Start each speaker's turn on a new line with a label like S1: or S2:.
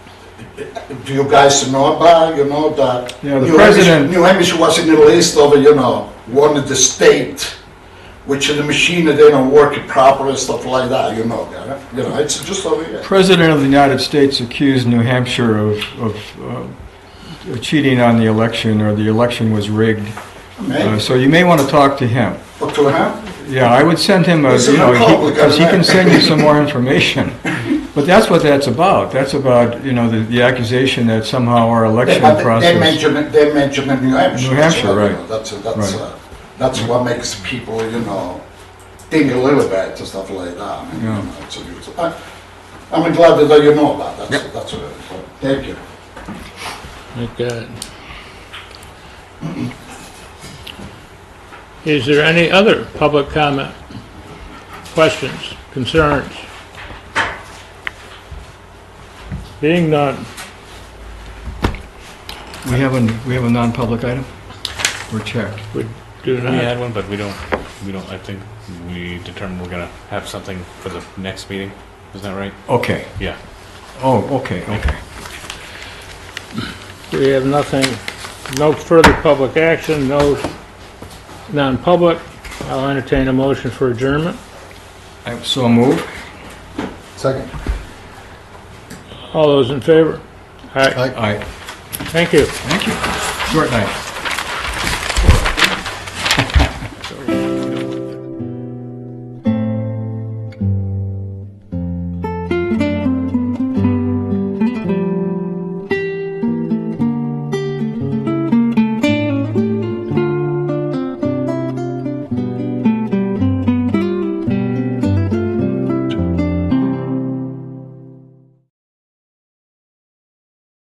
S1: do you guys know about, you know, that
S2: Yeah, the
S1: New Hampshire-
S2: president-
S1: New Hampshire was in the list of, you know, one of the state, which the machine, they don't work it proper and stuff like that, you know, that, you know, it's just over here.
S2: President of the United States accused New Hampshire of, of uh, cheating on the election, or the election was rigged. Uh,
S1: Okay,
S2: So you may want to talk to him.
S1: But to him,
S2: Yeah, I would send him a,
S1: He's a
S2: you know,
S1: Republican,
S2: because he can
S1: right?
S2: send you some more information. But that's what that's about. That's about, you know, the, the accusation that somehow our
S1: they,
S2: election
S1: but they
S2: process.
S1: mention, it- they mention it New Hampshire.
S2: New
S1: that's
S2: Hampshire,
S1: what, you know,
S2: right.
S1: That's, that's,
S2: Right.
S1: uh, that's what makes people, you know, think a little bit and stuff like that. I mean, you
S2: Yeah.
S1: know, it's a- it's a- I- I'm glad that you know about that, that's, that's, uh, thank you.
S3: Thank God. Is there any other public comment, questions, concerns? Being none,
S2: We have a, we have a non-public item? We're checked.
S3: we do
S4: We
S3: not.
S4: had one, but we don't, we don't, I think we determined we're gonna have something for the next meeting, isn't that right?
S2: Okay.
S4: Yeah.
S2: Oh, okay, okay.
S3: We have nothing, no further public action, no non-public. I'll entertain a motion for adjournment.
S2: I- So move.
S1: Second.
S3: All those in favor? All right,
S2: Aye.
S3: thank you.
S2: Thank you. Short night.